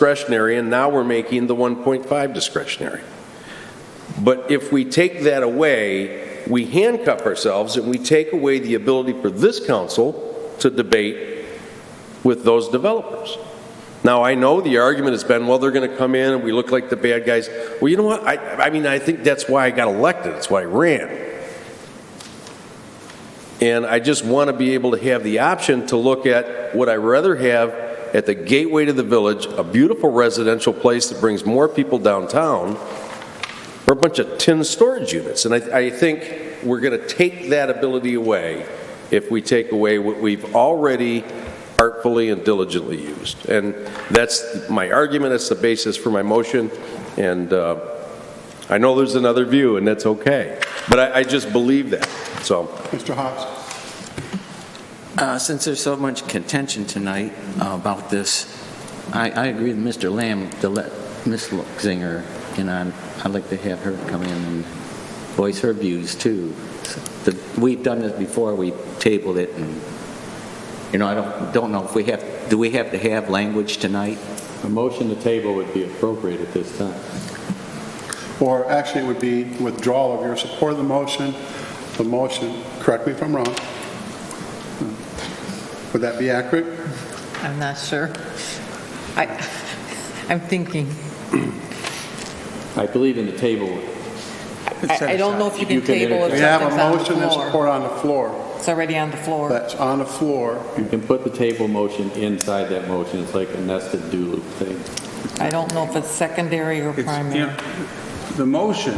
discretionary, and now we're making the 1.5 discretionary. But if we take that away, we handcuff ourselves and we take away the ability for this council to debate with those developers. Now, I know the argument has been, well, they're going to come in and we look like the bad guys. Well, you know what? I, I mean, I think that's why I got elected. That's why I ran. And I just want to be able to have the option to look at, would I rather have at the gateway to the village, a beautiful residential place that brings more people downtown, or a bunch of tin storage units. And I, I think we're going to take that ability away if we take away what we've already artfully and diligently used. And that's my argument, that's the basis for my motion, and uh, I know there's another view, and that's okay. But I, I just believe that, so. Mr. Hobbs? Uh, Since there's so much contention tonight about this, I, I agree with Mr. Lamb to let Ms. Zinger in on. I'd like to have her come in and voice her views, too. The- We've done this before, we tabled it, and, you know, I don't, don't know if we have, do we have to have language tonight? A motion to table would be appropriate at this time. Or actually, it would be withdrawal of your support of the motion, the motion, correct me if I'm wrong. Would that be accurate? I'm not sure. I, I'm thinking, I believe in the table. I I don't know if you You can can table if We have a something's on the motion and floor. support on the floor. It's already on the floor. That's on the floor. You can put the table motion inside that motion. It's like a nested do loop thing. I don't know if it's secondary or It's, you know, primary. The motion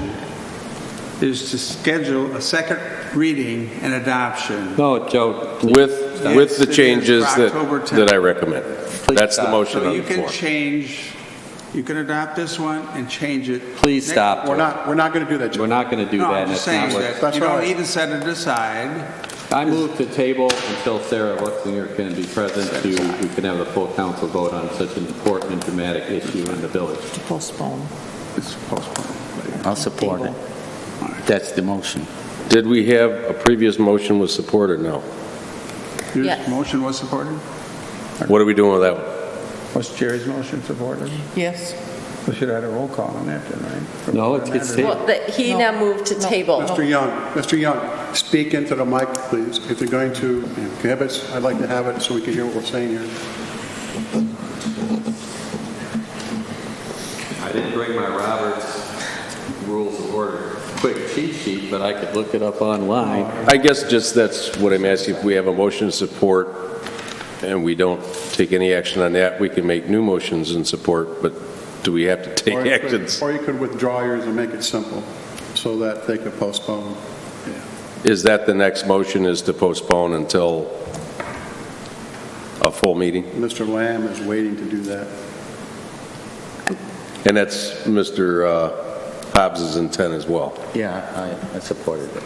is to schedule a second reading and adoption. No, Joe, With, with the changes that, that I recommend. That's the motion Uh, So on you the can floor. change, you can adopt this one and change it. please next- stop. We're not, we're not going to do that, We're Jim. not going to do No, that. I'm and that's just saying not what- that That's you all don't right. even set it aside. I move to table until Sarah Lutzinger can be present to, we can have a full council vote on such an important and dramatic issue in the village. To postpone. It's postponed. I'll support it. That's the motion. Did we have a previous motion with support or no? Your Yes. motion was supported? What are we doing with that one? Was Jerry's motion supported? Yes. We should have had a roll call on that, then, right? No, it gets tabled. Well, the- he No. now moved to No. table. Mr. Young, Mr. Young, speak into the mic, please. If you're going to, if you have it, I'd like to have it so we can hear what we're saying here. I didn't bring my Roberts Rules of Order quick cheat sheet, but I could look it up online. Oh. I guess just that's what I'm asking, if we have a motion to support and we don't take any action on that, we can make new motions in support, but do we have to take Or you could- actions? Or you could withdraw yours and make it simple so that they could postpone. Is that the next motion, is to postpone until a full meeting? Mr. Lamb is waiting to do that. And that's Mr. uh, Hobbs's intent as well. Yeah, I, I supported it.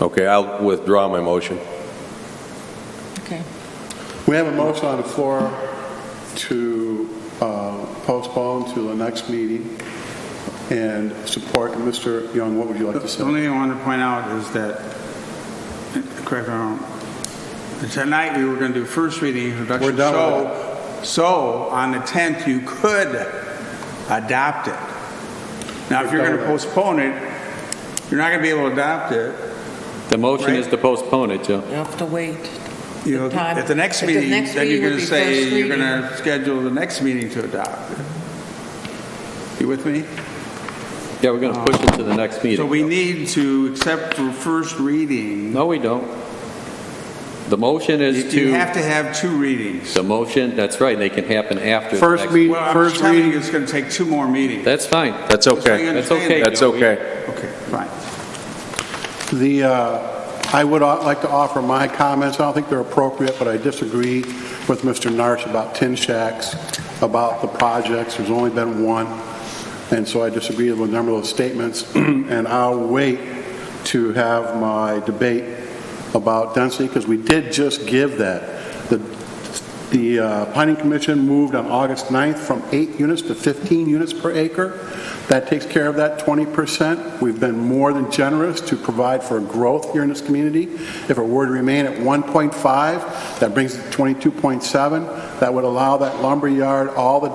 Okay, I'll withdraw my motion. Okay. We have a motion on the floor to uh, postpone to the next meeting and support. Mr. Young, what would you like to The say? only thing I want to point out is that, correct me if I'm wrong, tonight we were going to do first reading introduction. We're done with So, so on the 10th, you could adopt it. Now, if you're going to postpone it, you're not going to be able to adopt it. The motion is Right. to postpone it, Joe. You have to wait. You know, The time- At the next at the meeting, next then you're meeting would going to be say, first you're going reading. to schedule the next meeting to adopt it. You with me? Yeah, we're going to push it to the next So meeting. we need to accept for first reading. No, we don't. The motion You is you have to, to have two readings. the motion, that's right, they can happen after. the First next- meeting. Well, I'm First just telling reading- you, it's going to take two more meetings. That's fine. That's okay. That's okay. That's Joe. We- okay. Okay, fine. The, uh, I would au- like to offer my comments. I don't think they're appropriate, but I disagree with Mr. Narsh about tin shacks, about the projects. There's only been one. And so I disagree with a number of those statements. And I'll wait to have my debate about density because we did just give that. The the uh, Planning Commission moved on August 9th from eight units to 15 units per acre. That takes care of that 20%. We've been more than generous to provide for growth here in this community. If it were to remain at 1.5, that brings it to 22.7. That would allow that lumberyard all the